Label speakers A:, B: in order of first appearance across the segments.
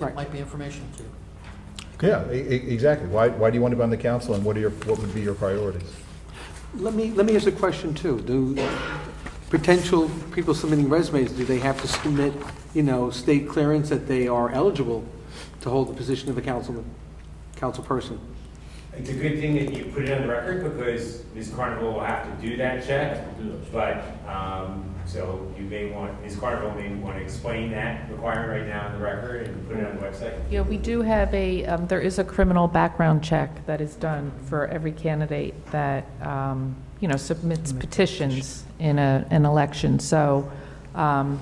A: Right.
B: might be information to you.
C: Yeah, e- e- exactly. Why, why do you want to be on the council and what are your, what would be your priorities?
A: Let me, let me ask a question too. Do potential people submitting resumes, do they have to submit, you know, state clearance that they are eligible to hold the position of a councilman, councilperson?
D: It's a good thing that you put it on the record because Ms. Carnival will have to do that check. But, um, so you may want, Ms. Carnival may want to explain that requirement right now on the record and put it on the website.
E: Yeah, we do have a, um, there is a criminal background check that is done for every candidate that, um, you know, submits petitions in a, an election. So um,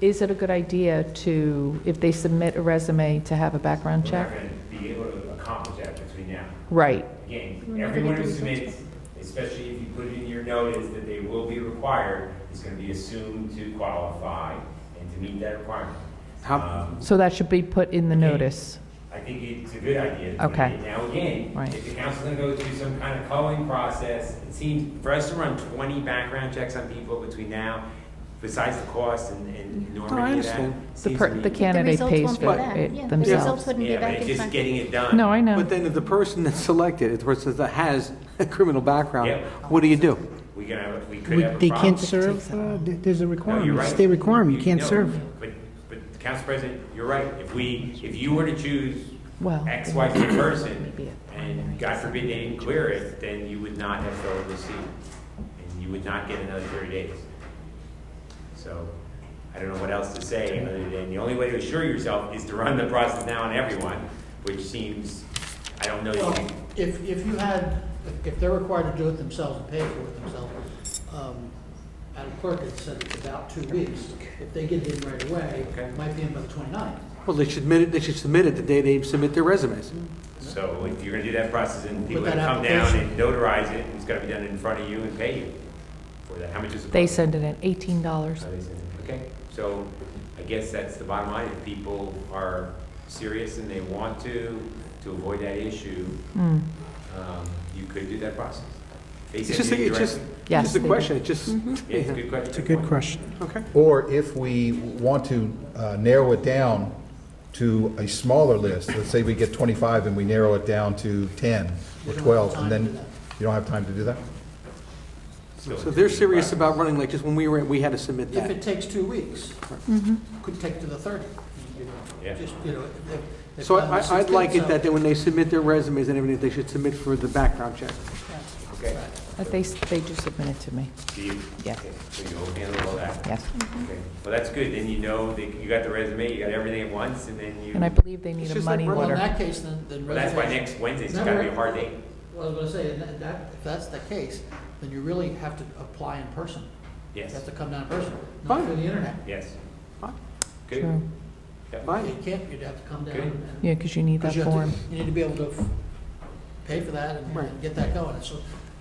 E: is it a good idea to, if they submit a resume, to have a background
D: We're not
E: check?
D: going to be able to accomplish that between now.
E: Right, We're
D: Again,
E: not
D: everyone
E: gonna
D: who
E: do something.
D: submits, especially if you put it in your notice that they will be required, is going to be assumed to qualify and to meet that requirement.
A: How,
D: Um,
E: so that should be put in the
D: Okay.
E: notice.
D: I think it's a good idea. to
E: Okay.
D: do it. Now, again,
E: Right.
D: if the council's gonna go through some kind of culling process, it seems, for us to run twenty background checks on people between now, besides the cost and, and
A: No, I
D: enormity of that.
A: understand.
E: The
D: seems to
E: per-
D: me-
E: the candidate
F: results
E: pays
F: won't be
E: for
F: back. Yeah,
E: it
F: the results
E: themselves.
F: wouldn't be
D: Yeah,
F: back
D: but
F: in
D: it's just
F: time.
D: getting it done.
E: No, I know.
A: but then if the person that's selected, if the person that has a criminal background,
D: Yeah.
A: what do you do?
D: We could have, we could
G: We-
D: have
G: They
D: a problem.
G: can't
E: Takes
G: serve,
E: a while.
G: uh, th- there's a
D: No, you're
G: requirement,
D: right.
G: state requirement, you can't
D: no,
G: serve.
D: But, but, Council President, you're right. If we, if you were to choose
E: Well,
D: X,
E: it
D: Y, Z
E: might be- maybe
D: person,
E: a primary
D: and God forbid they didn't clear it, then you would not have filled the seat. And you would not get another thirty days. So, I don't know what else to say, other than the only way to assure yourself is to run the process now on everyone, which seems, I don't know, you
B: Well,
D: can-
B: if, if you had, if- if they're required to do it themselves and pay for it themselves, um, Madam Clerk had said it's about two weeks. If they get it in right away,
D: Okay.
B: it might be in by the 29th.
A: Well, they should admit it, they should submit it the day they submit their resumes.
D: so if you're gonna do that process, and people
B: With
D: are
B: that
D: gonna come down
B: application.
D: and notarize it, and it's gonna be done in front of you and pay you for that. How much is it?
E: They send it in eighteen dollars.
D: How they send it. Okay, so I guess that's the bottom line, if people are serious and they want to, to avoid that issue,
E: Hmm.
D: um, you could do that process. They
A: It's
D: send
A: just, a-
D: you
A: it's just,
D: directly.
E: Yes,
A: it's just a
E: they do.
A: question, it's just,
D: Yeah, It's a good question.
G: It's a good question.
A: okay.
C: Or if we want to uh, narrow it down to a smaller list, let's say we get 25 and we narrow it down to 10
B: You
C: or
B: don't have
C: 12,
B: time
C: and
B: to
C: then
B: do that.
C: you don't have time to do that?
D: Still
A: So
D: a
A: they're
D: good
A: serious
D: process.
A: about running, like just when we were, we had to submit
B: If it
A: that.
B: takes two weeks, could take to the 30th. you know,
D: Yeah.
B: Just, you know, if- if- if
A: So
B: on the
A: I, I- I'd
B: 16th,
A: like it
B: so-
A: that they- when they submit their resumes and everything, they should submit for the background check.
D: Okay,
E: But they, they do submit it to me,
D: do you?
E: Yeah.
D: okay, So you will handle all that?
E: yes.
D: Okay, well, that's good, then you know that you got the resume, you got everything at once, and then you,
E: And I
D: well,
E: believe they need
A: It's
E: a
A: just like
E: money
A: running
B: Well, in
E: order.
B: that case, then, then.
D: that's why
B: reservations-
D: next Wednesday's gotta be a hard date.
B: Well, I was gonna say, and that, that- if that's the case, then you really have to apply in person. You
D: Yes,
B: have to come down in person, not through the internet.
D: yes.
A: Fine.
D: Good.
E: True.
D: Yep.
A: Fine.
B: You can't, you'd have to come down
D: Okay.
B: and.
E: Yeah, because you need that
B: 'cause you have to-
E: form.
B: You need to be able to f- pay for that and-
A: Right.
B: and get that going. So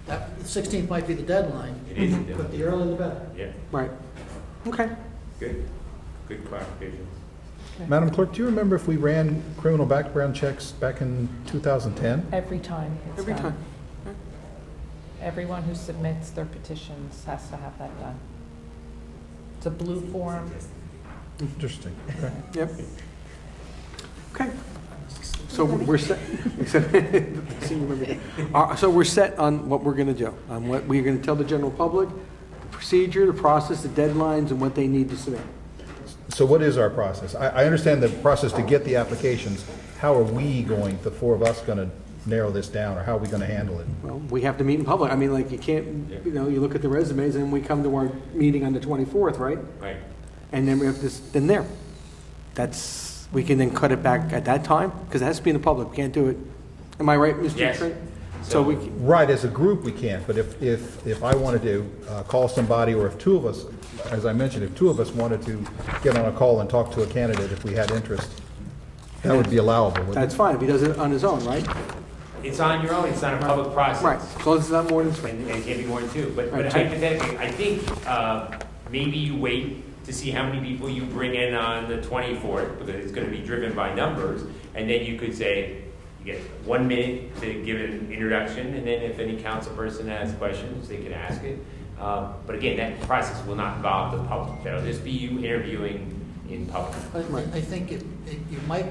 B: that, the sixteenth might be the deadline,
D: It is, a
B: but
D: deal.
B: the earlier the better.
D: yeah,
A: Right. Okay.
D: good, good clarification.
C: Madam Clerk, do you remember if we ran criminal background checks back in 2010?
E: Every time it's
A: Every
E: done.
A: time.
E: Everyone who submits their petitions has to have that done. It's a blue form.
C: Interesting. Okay.
A: Yep. Okay. So we're set, except- see, you remember that. Uh, so we're set on what we're going to do, on what we're going to tell the general public, the procedure, the process, the deadlines, and what they need to submit.
C: So what is our process? I, I understand the process to get the applications. How are we going, the four of us, going to narrow this down, or how are we going to handle it?
A: Well, we have to meet in public. I mean, like, you can't, you know, you look at the resumes, and we come to our meeting on the 24th, right?
D: Right,
A: And then we have this, then there. That's, we can then cut it back at that time, because it has to be in the public, We can't do it. Am I right, Mr.
D: Yes.
A: Trent? So we, c-
C: Right, as a group, we can't, but if, if, if I wanted to uh, call somebody, or if two of us, as I mentioned, if two of us wanted to get on a call and talk to a candidate if we had interest, that would be allowable, wouldn't
A: that's
C: it?
A: fine, if he does it on his own, right?
D: it's on your own, it's not a public
A: Right,
D: process.
A: as long as it's not more than three.
D: And and it can't be more than two, but but
A: Right, two.
D: hypothetically, I think uh, maybe you wait to see how many people you bring in on the 24th, because it's going to be driven by numbers, and then you could say, you get one minute to give an introduction, and then if any council person has questions, they can ask it. Uh, But again, that process will not involve the public, that'll just be you interviewing in public.
B: I I think it, it- you might